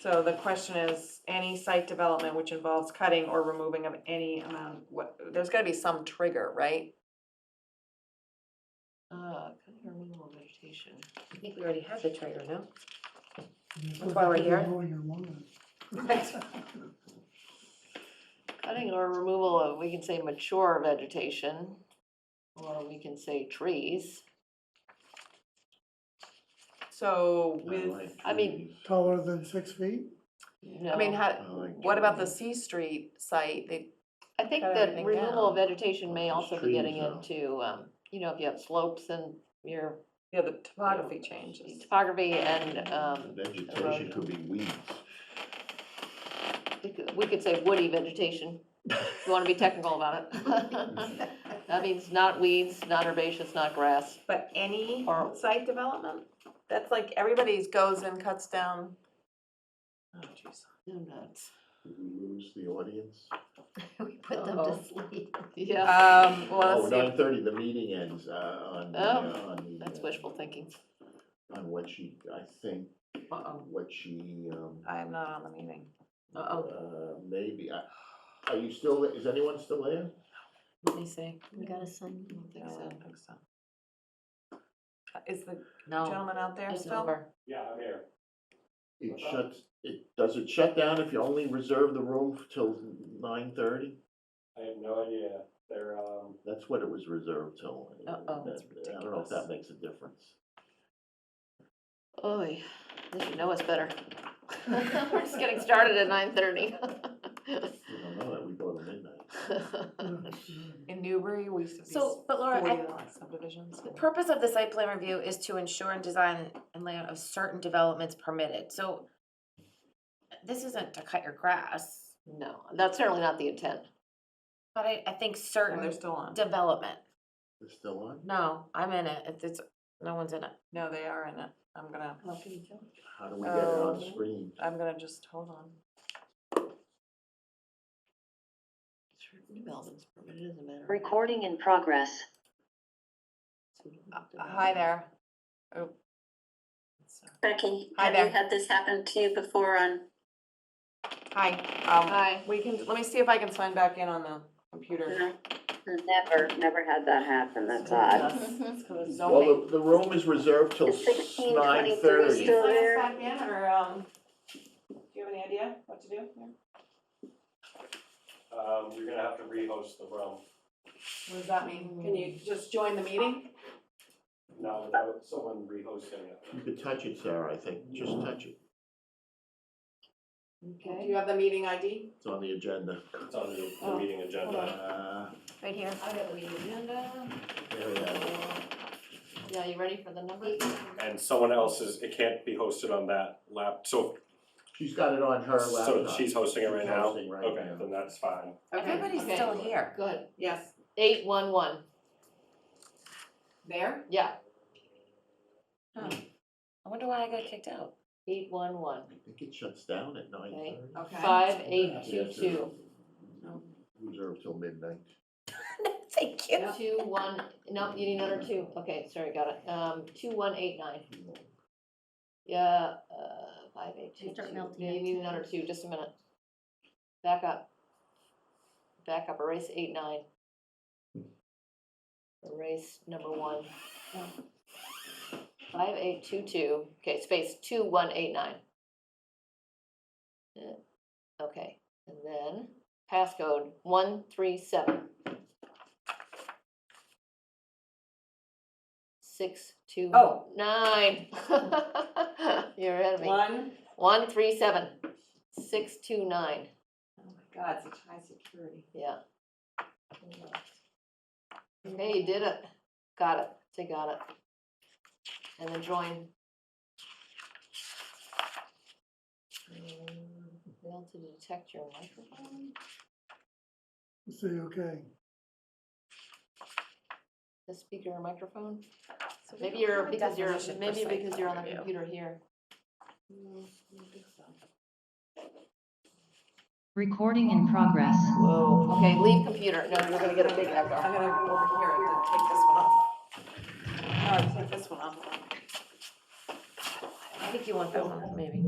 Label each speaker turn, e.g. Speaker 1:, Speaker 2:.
Speaker 1: So the question is, any site development which involves cutting or removing of any amount, what, there's gotta be some trigger, right?
Speaker 2: Uh, cutting or removal of vegetation. I think we already had the trigger, no?
Speaker 3: That's
Speaker 2: why we're here.
Speaker 3: here.
Speaker 2: Cutting or removal of, we can say mature vegetation, or we can say trees.
Speaker 1: So with,
Speaker 4: like
Speaker 2: I mean-
Speaker 4: trees.
Speaker 3: Taller than six feet?
Speaker 1: I mean,
Speaker 2: No.
Speaker 1: how,
Speaker 4: I like
Speaker 1: what about the
Speaker 4: trees.
Speaker 1: C Street site, they,
Speaker 2: I think
Speaker 1: cut
Speaker 2: that
Speaker 1: everything
Speaker 2: removal of
Speaker 1: down.
Speaker 2: vegetation may
Speaker 4: Those
Speaker 2: also be
Speaker 4: trees
Speaker 2: getting
Speaker 4: now.
Speaker 2: into, um, you know, if you have slopes and your
Speaker 1: yeah, the topography changes.
Speaker 2: topography and, um,
Speaker 4: Vegetation could be weeds.
Speaker 2: we could- we could say woody vegetation. If you wanna be technical about it. That means not weeds, not herbaceous, not grass.
Speaker 1: But any
Speaker 2: Or-
Speaker 1: site development, that's like, everybody's goes and cuts down. Oh, jeez.
Speaker 2: No nuts.
Speaker 4: Did we lose the audience?
Speaker 5: We put them
Speaker 2: Uh-oh.
Speaker 5: to sleep.
Speaker 2: Yeah,
Speaker 1: Um, well,
Speaker 4: Oh,
Speaker 1: let's see,
Speaker 4: nine thirty, the meeting ends, uh, on the,
Speaker 2: Oh,
Speaker 4: uh, on the.
Speaker 2: that's
Speaker 4: uh,
Speaker 2: wishful thinking.
Speaker 4: On what she, I think,
Speaker 2: Uh-oh,
Speaker 4: what she, um,
Speaker 1: I'm not on the meeting.
Speaker 2: uh-oh.
Speaker 4: uh, maybe, I, are you still, is anyone still there?
Speaker 2: Let me see.
Speaker 5: We got a son.
Speaker 2: I don't think
Speaker 1: No, I
Speaker 2: so.
Speaker 1: don't think so. Uh, Is the
Speaker 2: No.
Speaker 1: gentleman out there
Speaker 2: It's
Speaker 1: still?
Speaker 2: over.
Speaker 6: Yeah, I'm here.
Speaker 4: It shuts, it, does it shut down if you only reserve the room till nine thirty?
Speaker 6: I have no idea. They're, um,
Speaker 4: That's what it was reserved till. and
Speaker 2: Uh-oh, that's
Speaker 4: that- I don't know if
Speaker 2: ridiculous.
Speaker 4: that makes a difference.
Speaker 2: Oy, they should know us better. We're just getting started at nine thirty.
Speaker 4: We don't know that, we go to midnight.
Speaker 2: Hmm.
Speaker 1: In Newbury, we used to be
Speaker 7: So, but Laura,
Speaker 1: forty
Speaker 7: I,
Speaker 1: lot subdivisions.
Speaker 7: the purpose of the site plan review is to ensure and design and layout of certain developments permitted, so this isn't to cut your grass,
Speaker 2: No, that's certainly not the intent.
Speaker 7: but I, I think
Speaker 1: And they're
Speaker 7: certain
Speaker 1: still on.
Speaker 7: development,
Speaker 4: It's still on?
Speaker 7: no, I'm in it, it's, it's, no one's in it.
Speaker 1: No, they are in it. I'm gonna,
Speaker 4: How do we get it on
Speaker 1: Oh.
Speaker 4: screen?
Speaker 1: I'm gonna just, hold on.
Speaker 2: Certain developments permitted, it doesn't matter.
Speaker 8: Recording in progress.
Speaker 1: Uh, Hi there. Oh. So-
Speaker 8: Becky,
Speaker 1: Hi
Speaker 8: have you
Speaker 1: there.
Speaker 8: had this happen to you before on
Speaker 1: Hi, um,
Speaker 2: Hi.
Speaker 1: we can, let me see if I can sign back in on the computer.
Speaker 8: Never, never had that happen, that's odd.
Speaker 1: Let's go to
Speaker 4: Well,
Speaker 1: zoning.
Speaker 4: the, the room is reserved till
Speaker 8: Is sixteen
Speaker 4: nine
Speaker 8: twenty-three
Speaker 4: thirty.
Speaker 8: still there?
Speaker 1: Sign us back in, or, um, do you have any idea what to do here?
Speaker 6: um, you're gonna have to rehost the room.
Speaker 1: What does that mean? Can you just join the meeting?
Speaker 6: Not without someone rehosting it.
Speaker 4: You could touch it, Sarah, I think, just
Speaker 6: Mm-hmm.
Speaker 4: touch it,
Speaker 1: Do
Speaker 2: Okay.
Speaker 1: you have the meeting ID?
Speaker 4: it's on the agenda.
Speaker 6: It's on the, the
Speaker 2: Oh,
Speaker 6: meeting agenda.
Speaker 4: Uh,
Speaker 7: Right here.
Speaker 2: I got the agenda.
Speaker 4: there we are.
Speaker 2: Yeah, you ready for the number?
Speaker 6: And someone else's, it can't be hosted on that lap, so,
Speaker 4: She's got it on her
Speaker 6: so
Speaker 4: laptop.
Speaker 6: she's hosting it right now?
Speaker 4: She's hosting right
Speaker 6: Okay,
Speaker 4: now.
Speaker 6: then that's fine.
Speaker 7: Everybody's
Speaker 2: Okay.
Speaker 7: still here.
Speaker 2: Good.
Speaker 1: Yes.
Speaker 2: Eight one one,
Speaker 1: There?
Speaker 2: yeah,
Speaker 7: I wonder why I got kicked out.
Speaker 2: eight one one,
Speaker 4: I think it shuts down at nine thirty.
Speaker 1: Okay.
Speaker 2: five eight two two,
Speaker 4: Reserved till midnight.
Speaker 7: Thank you.
Speaker 2: two one, no, you need another two, okay, sorry, got it, um, two one eight nine. Yeah, uh, five, eight, two,
Speaker 5: They start
Speaker 2: two.
Speaker 5: melting
Speaker 2: Yeah, you
Speaker 5: it.
Speaker 2: need another two, just a minute. Back up. Back up, erase eight, nine. Erase number one. Five, eight, two, two, okay, space, two, one, eight, nine. Yeah, Okay, and then passcode, one, three, seven. Six, two,
Speaker 1: Oh.
Speaker 2: nine. You're ahead of me.
Speaker 1: One.
Speaker 2: One three seven six two nine.
Speaker 1: Oh my god, such high security.
Speaker 2: Yeah. Okay, you did it. Got it. Say got it. And then join. Um, Fail to detect your microphone.
Speaker 3: Say, okay.
Speaker 2: The speaker or microphone.
Speaker 7: So we
Speaker 2: Maybe
Speaker 7: don't
Speaker 2: you're
Speaker 7: have a
Speaker 2: because you're
Speaker 7: definition for
Speaker 2: maybe
Speaker 7: site
Speaker 2: because you're on the
Speaker 7: review.
Speaker 2: computer here.
Speaker 5: Recording in progress.
Speaker 2: Whoa. Okay, leave computer. No, you're gonna get a big
Speaker 1: I'm
Speaker 2: echo.
Speaker 1: gonna go over here and take this one off. No, take this one off.
Speaker 7: I think you want that one, maybe.